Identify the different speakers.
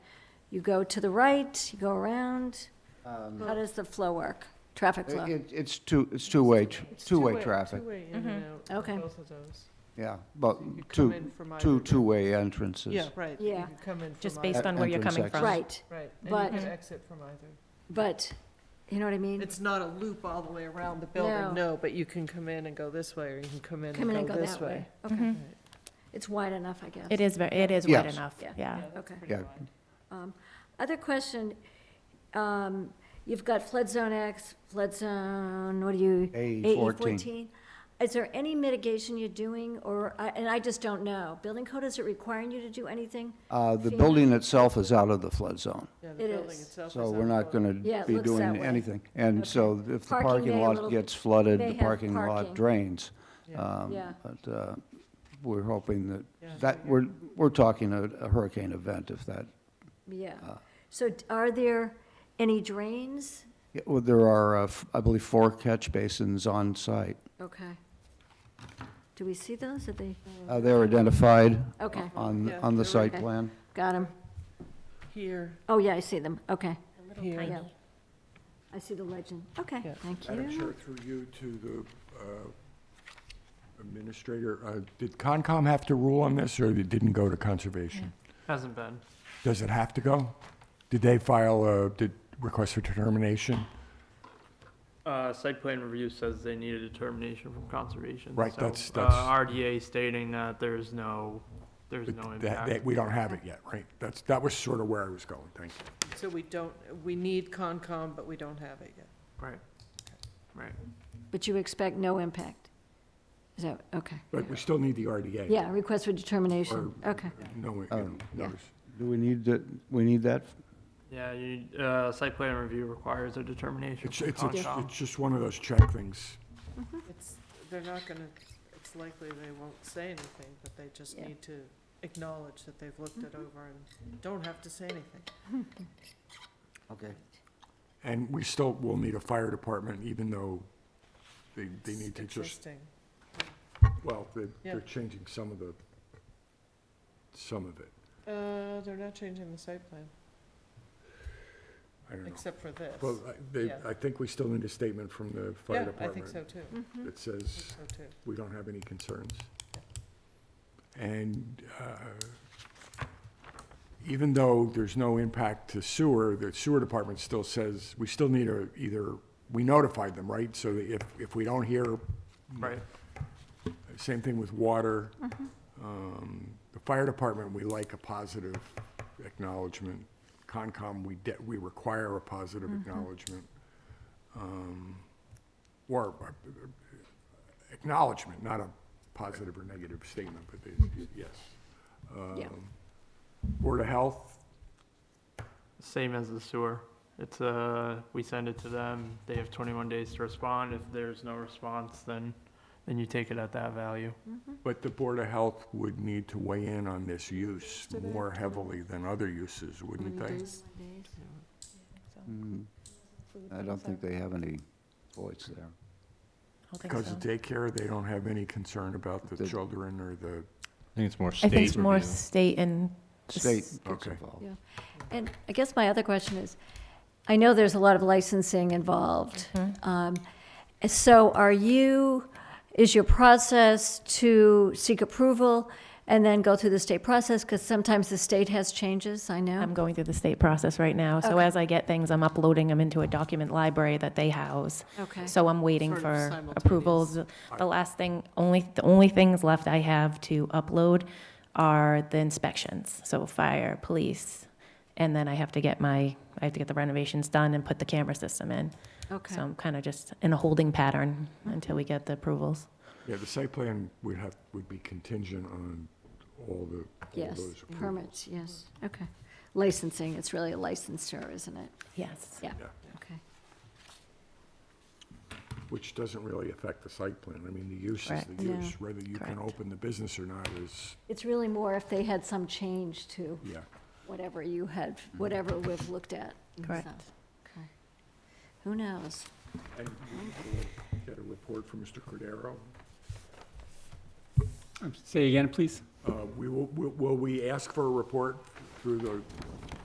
Speaker 1: You go to the right, you go around.
Speaker 2: Um,
Speaker 1: How does the flow work? Traffic
Speaker 2: It-
Speaker 1: flow?
Speaker 2: it- It's two, it's two-way, tr-
Speaker 3: It's
Speaker 2: two-way traffic,
Speaker 3: Two-way in and
Speaker 1: Mm-hmm.
Speaker 3: out. of
Speaker 1: Okay.
Speaker 3: Both of those.
Speaker 2: yeah, but
Speaker 3: So you could come
Speaker 2: two,
Speaker 3: in from either
Speaker 2: two,
Speaker 3: dir-
Speaker 2: two-way entrances.
Speaker 3: Yeah, right. you
Speaker 1: Yeah.
Speaker 3: could come in
Speaker 4: Just
Speaker 3: from
Speaker 4: based
Speaker 3: either-
Speaker 4: on where you're
Speaker 2: Entrance
Speaker 4: coming
Speaker 2: exit.
Speaker 4: from.
Speaker 1: Right,
Speaker 3: Right,
Speaker 1: but-
Speaker 3: and you could exit from either.
Speaker 1: but, you know what I mean?
Speaker 3: It's not a loop all the way around the
Speaker 1: No.
Speaker 3: building, no, but you can come in and go this way, or you can come in
Speaker 1: Come in and
Speaker 3: and
Speaker 1: go
Speaker 3: go this
Speaker 1: that way.
Speaker 3: way.
Speaker 1: Okay.
Speaker 3: Mm-hmm.
Speaker 1: It's wide enough, I guess.
Speaker 4: Mm-hmm. It is, ve- it is wide
Speaker 2: Yes.
Speaker 4: enough,
Speaker 1: Yeah.
Speaker 4: yeah.
Speaker 3: that's
Speaker 1: Okay.
Speaker 3: pretty
Speaker 2: Yeah.
Speaker 3: wide.
Speaker 1: Um, Other question, um, you've got flood zone X, flood zone, what do you?
Speaker 2: AE E fourteen.
Speaker 1: AE14. Is there any mitigation you're doing, or, I- and I just don't know, building code, is it requiring you to do anything?
Speaker 2: Uh, The
Speaker 1: FEMA.
Speaker 2: building itself is out of the flood zone,
Speaker 3: Yeah,
Speaker 1: It
Speaker 3: the building
Speaker 1: is.
Speaker 3: itself is.
Speaker 2: so we're not going
Speaker 1: Yeah,
Speaker 2: to
Speaker 1: it
Speaker 2: be
Speaker 1: looks that
Speaker 2: doing
Speaker 1: way.
Speaker 2: anything. And
Speaker 1: Okay.
Speaker 2: so if the
Speaker 1: Parking
Speaker 2: parking
Speaker 1: may a
Speaker 2: lot
Speaker 1: little-
Speaker 2: gets flooded,
Speaker 1: may
Speaker 2: the
Speaker 1: have
Speaker 2: parking
Speaker 1: parking.
Speaker 2: lot drains.
Speaker 3: Yeah.
Speaker 2: Um,
Speaker 1: Yeah.
Speaker 2: But uh, we're hoping that,
Speaker 3: Yeah,
Speaker 2: that,
Speaker 3: so
Speaker 2: we're, we're talking a a hurricane event if that,
Speaker 1: Yeah.
Speaker 2: Uh.
Speaker 1: So d- are there any drains?
Speaker 2: yeah, well, there are, uh, f- I believe, four catch basins on site.
Speaker 1: Okay. Do we see those? Are they, Oh.
Speaker 2: Uh, They're identified
Speaker 1: okay,
Speaker 2: on,
Speaker 3: Yeah,
Speaker 2: on the
Speaker 3: they're
Speaker 2: site
Speaker 1: okay.
Speaker 2: plan.
Speaker 1: got them.
Speaker 3: Here,
Speaker 1: Oh, yeah, I see them, okay.
Speaker 3: here.
Speaker 1: Yeah. I see the legend, okay,
Speaker 3: Yeah.
Speaker 1: thank
Speaker 5: Madam Chair,
Speaker 1: you.
Speaker 5: through you to the uh, Administrator, uh, did Concom have to rule on this, or it didn't go to Conservation?
Speaker 6: Hasn't been.
Speaker 5: Does it have to go? Did they file a, did request for determination?
Speaker 6: Uh, site plan review says they need a determination from conservation.
Speaker 5: Right,
Speaker 6: so,
Speaker 5: that's-
Speaker 6: uh,
Speaker 5: that's-
Speaker 6: RDA stating that there's no, there's no
Speaker 5: That- that-
Speaker 6: impact.
Speaker 5: We don't have it yet, right? That's, that was sort of where I was going, thank you.
Speaker 3: So we don't, we need Concom, but we don't have it yet.
Speaker 6: Right, right.
Speaker 1: But you expect no impact? Is that, okay.
Speaker 5: But we still need the RDA.
Speaker 1: Yeah, request for determination,
Speaker 5: Or-
Speaker 1: okay.
Speaker 5: No, you
Speaker 2: Oh.
Speaker 5: know,
Speaker 1: Yeah.
Speaker 5: notice.
Speaker 2: Do we need, that- we need that?
Speaker 6: Yeah, you, uh, site plan review requires a determination
Speaker 5: It's,
Speaker 6: from
Speaker 5: it's, it's
Speaker 6: Concom.
Speaker 5: it's just one of those check things.
Speaker 3: It's, they're not gonna, it's likely they won't say anything, but they just
Speaker 1: Yeah. Mm-hmm.
Speaker 3: need to acknowledge that they've looked it over and don't have to say anything.
Speaker 2: Okay.
Speaker 5: And we still will need a fire department, even though they, they need to
Speaker 3: It's
Speaker 5: just
Speaker 3: Existing.
Speaker 5: Well, they're,
Speaker 3: Yeah.
Speaker 5: they're changing some of the, some of it.
Speaker 3: Uh, they're not changing the site plan,
Speaker 5: I don't know.
Speaker 3: except for this.
Speaker 5: Well, I- they,
Speaker 3: yeah.
Speaker 5: I think we still need a statement from the fire
Speaker 3: Yeah, I think so
Speaker 5: department
Speaker 3: too, I
Speaker 1: Mhm.
Speaker 5: that says
Speaker 3: think so too.
Speaker 5: we don't have any concerns. And uh, even though there's no impact to sewer, the sewer department still says, we still need a, either, we notified them, right? So that if, if we don't hear
Speaker 6: Right,
Speaker 5: Same thing with water. Um, The fire department, we like a positive acknowledgement. Concom, we de, we require a positive acknowledgement. Um, Or uh, acknowledgement, not a positive or negative statement, but they- yes.
Speaker 1: Yeah.
Speaker 5: Um, Board of Health,
Speaker 6: same as the sewer. It's, uh, we send it to them, they have twenty-one days to respond. If there's no response, then, then you take it at that value.
Speaker 5: but the Board of Health would need to weigh in on this use more heavily than other uses, wouldn't they?
Speaker 1: mm-hmm.
Speaker 2: Mm, I don't think they have any voice there.
Speaker 4: I don't think
Speaker 5: Because
Speaker 4: so.
Speaker 5: of daycare, they don't have any concern about the
Speaker 2: The-
Speaker 5: children or the,
Speaker 7: I think it's more
Speaker 4: I
Speaker 7: state
Speaker 4: think it's more
Speaker 7: review.
Speaker 4: state and,
Speaker 2: State gets
Speaker 5: Okay.
Speaker 2: involved.
Speaker 1: And I guess my other question is, I know there's a lot of licensing involved.
Speaker 4: Mm-hmm.
Speaker 1: Um, So are you, is your process to seek approval and then go through the state process? Because sometimes the state has changes, I
Speaker 4: I'm
Speaker 1: know.
Speaker 4: going through the state process right now. So
Speaker 1: Okay.
Speaker 4: as I get things, I'm uploading them into a document library that they house.
Speaker 1: Okay.
Speaker 4: So I'm waiting
Speaker 3: Sort of
Speaker 4: for
Speaker 3: simultaneous.
Speaker 4: approvals. The last thing, only, the only things left I have to upload are the inspections, so fire, police. And then I have to get my, I have to get the renovations done and put the camera system in.
Speaker 1: Okay.
Speaker 4: So I'm kind of just in a holding pattern until we get the approvals.
Speaker 5: yeah, the site plan would have, would be contingent on all the, all
Speaker 1: Yes,
Speaker 5: those approvals.
Speaker 1: permits, yes,
Speaker 4: Mm-hmm.
Speaker 1: okay. Licensing, it's really a licensor, isn't it?
Speaker 4: Yes.
Speaker 1: Yeah,
Speaker 5: Yeah.
Speaker 1: okay.
Speaker 5: Which doesn't really affect the site plan. I mean, the use is
Speaker 4: Correct.
Speaker 5: the
Speaker 1: Yeah.
Speaker 5: use, whether you can
Speaker 4: Correct.
Speaker 5: open the business or not is,
Speaker 1: It's really more if they had some change to
Speaker 5: yeah.
Speaker 1: whatever you had, whatever we've looked at. and
Speaker 4: Correct.
Speaker 1: stuff. Okay. Who knows?
Speaker 5: And we'll get a report from Mr. Cordero.
Speaker 7: Say again, please?
Speaker 5: Uh, we will, will will we ask for a report through the